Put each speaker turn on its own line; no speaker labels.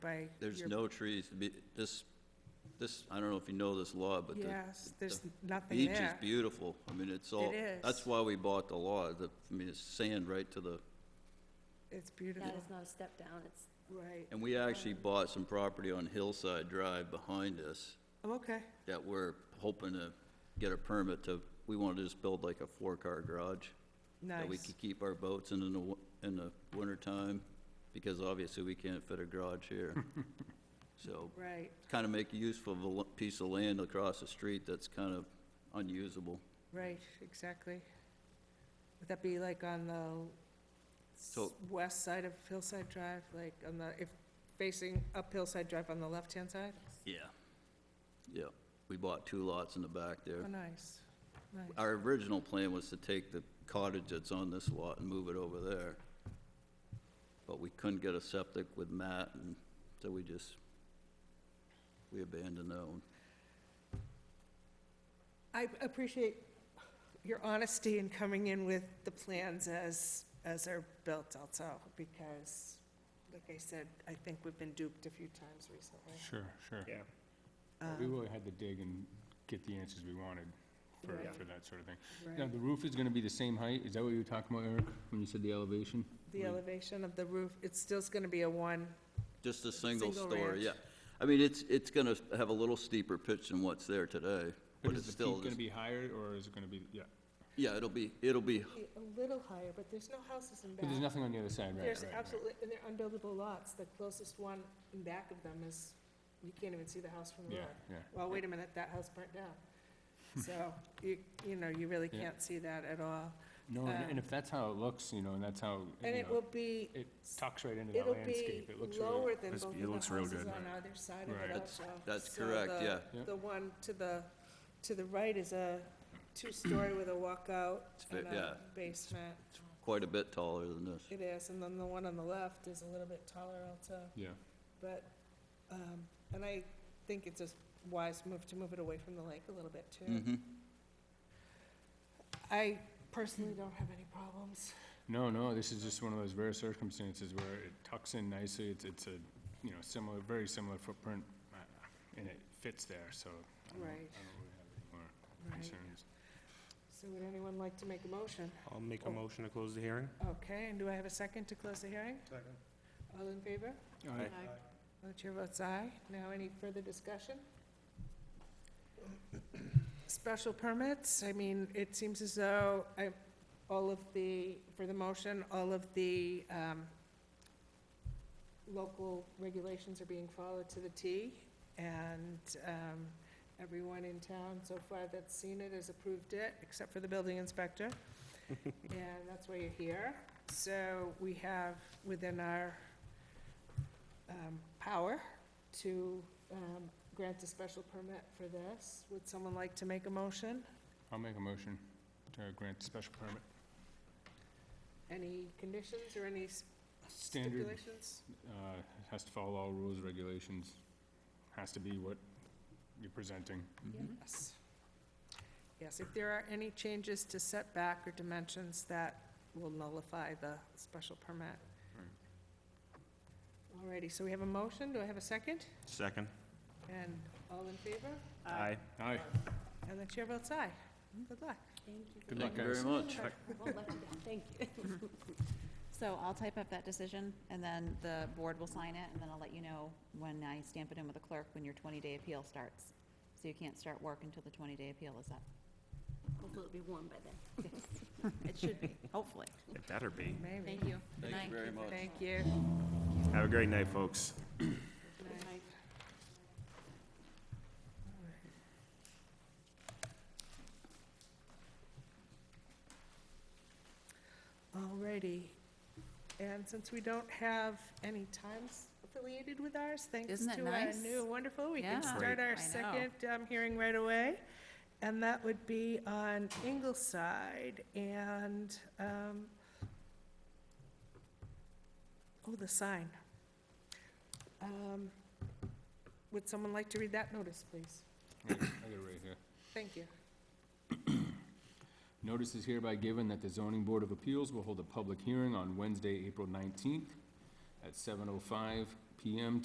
by.
There's
your-
no trees, to be- this, this, I don't know if you know this law, but the
Yes, there's
the
nothing
beach is
there.
beautiful. I mean, it's all,
It is.
that's why we bought the law, the, I mean, it's sand right to the,
It's
Yeah,
beautiful,
it's not a step down, it's,
right.
and we actually bought some property on Hillside Drive behind us
Oh, okay,
that we're hoping to get a permit to, we want to just build like a four-car garage. That we
nice.
could keep our boats in in the, wi- in the wintertime, because obviously we can't fit a garage here. So,
Right,
kind of make use of a l- piece of land across the street that's kind of unusable.
right, exactly. Would that be like on the
So-
s- west side of Hillside Drive, like on the, if facing up Hillside Drive on the left-hand side?
Yeah. Yeah, we bought two lots in the back there.
Oh, nice, nice.
Our original plan was to take the cottage that's on this lot and move it over there. But we couldn't get a septic with Matt, and so we just, we abandoned that one.
I appreciate your honesty in coming in with the plans as, as are built also, because, like I said, I think we've been duped a few times recently.
Sure, sure.
Yeah,
We really had to dig and get the answers we wanted for,
Right.
for that sort of thing. Now,
Right.
the roof is gonna be the same height? Is that what you were talking about, Eric, when you said the elevation?
The elevation of the roof, it's still gonna be a one,
Just a single
Single
story,
ranch.
yeah. I mean, it's, it's gonna have a little steeper pitch than what's there today, but it's still,
Is the peak gonna
just-
be higher, or is it gonna be, yeah?
yeah, it'll be, it'll be,
a little higher, but there's no houses in back.
But there's nothing on the other side, right,
There's
right, right.
absolutely, and they're unbuildable lots, the closest one in back of them is, you can't even see the house from the
Yeah,
road.
yeah.
Well, wait a minute, that house burnt down. So, you, you know, you really
Yeah.
can't see that at all.
No, and-
Um,
and if that's how it looks, you know, and that's how,
And
you
it will
know,
be,
it tucks right into the
it'll be
landscape. It looks really.
lower than
It's-
both of
it
the
looks real
houses
good,
on
right.
either side of
Right.
it
That's-
also.
that's
So
correct,
the-
yeah.
Yeah.
The one to the, to the right is a two-story with a walkout
It's ve-
and
yeah.
a basement.
quite a bit taller than this.
It is, and then the one on the left is a little bit taller also,
Yeah,
but, um, and I think it's a wise move to move it away from the lake a little bit too.
Mm-hmm.
I personally don't have any problems.
no, no, this is just one of those rare circumstances where it tucks in nicely, it's, it's a, you know, similar, very similar footprint, uh, and it fits there, so. I don't- I don't
Right.
really have any more
Right.
concerns.
So would anyone like to make a motion?
I'll make a
Oh.
motion to close the hearing.
Okay, and do I have a second to close the hearing? Second. All in favor?
Aye.
The chair votes aye. Now, any further discussion? Special permits, I mean, it seems as though I, all of the, for the motion, all of the, um, local regulations are being followed to the T, and, um, everyone in town so far that's seen it has approved it, except for the building inspector. And that's why you're here. So we have within our, um, power to um, grant a special permit for this. Would someone like to make a motion?
I'll make a motion to grant the special permit.
Any conditions or any s-
Standard,
stipulations?
uh, it has to follow all rules, regulations, has to be what you're presenting.
Mm-hmm.
Yes. Yes, if there are any changes to setback or dimensions, that will nullify the special permit. Alrighty, so we have a motion. Do I have a second?
Second.
And all in favor?
Aye,
And the chair votes aye. Good luck.
thank you.
Good
Thank
luck,
you
guys.
very much.
Won't let you down, thank you.
So I'll type up that decision, and then the board will sign it, and then I'll let you know when I stamp it in with the clerk when your 20-day appeal starts. So you can't start work until the 20-day appeal is up.
Hopefully it'll be warm by then.
It should be, hopefully.
It better be.
Maybe.
Thank you. Good
Thank
night.
you very much.
Thank you.
Have a great night, folks.
Alrighty, and since we don't have any times affiliated with ours, thanks
Isn't that
to our
nice?
new wonderful, we can
Yeah.
start
Great.
our
I know.
second um, hearing right away. And that would be on Ingleside and, um, oh, the sign. Um, Would someone like to read that notice, please?
Wait, I got it right here.
Thank you.
Notice is hereby given that the zoning board of appeals will hold a public hearing on Wednesday, April nineteenth at seven oh five PM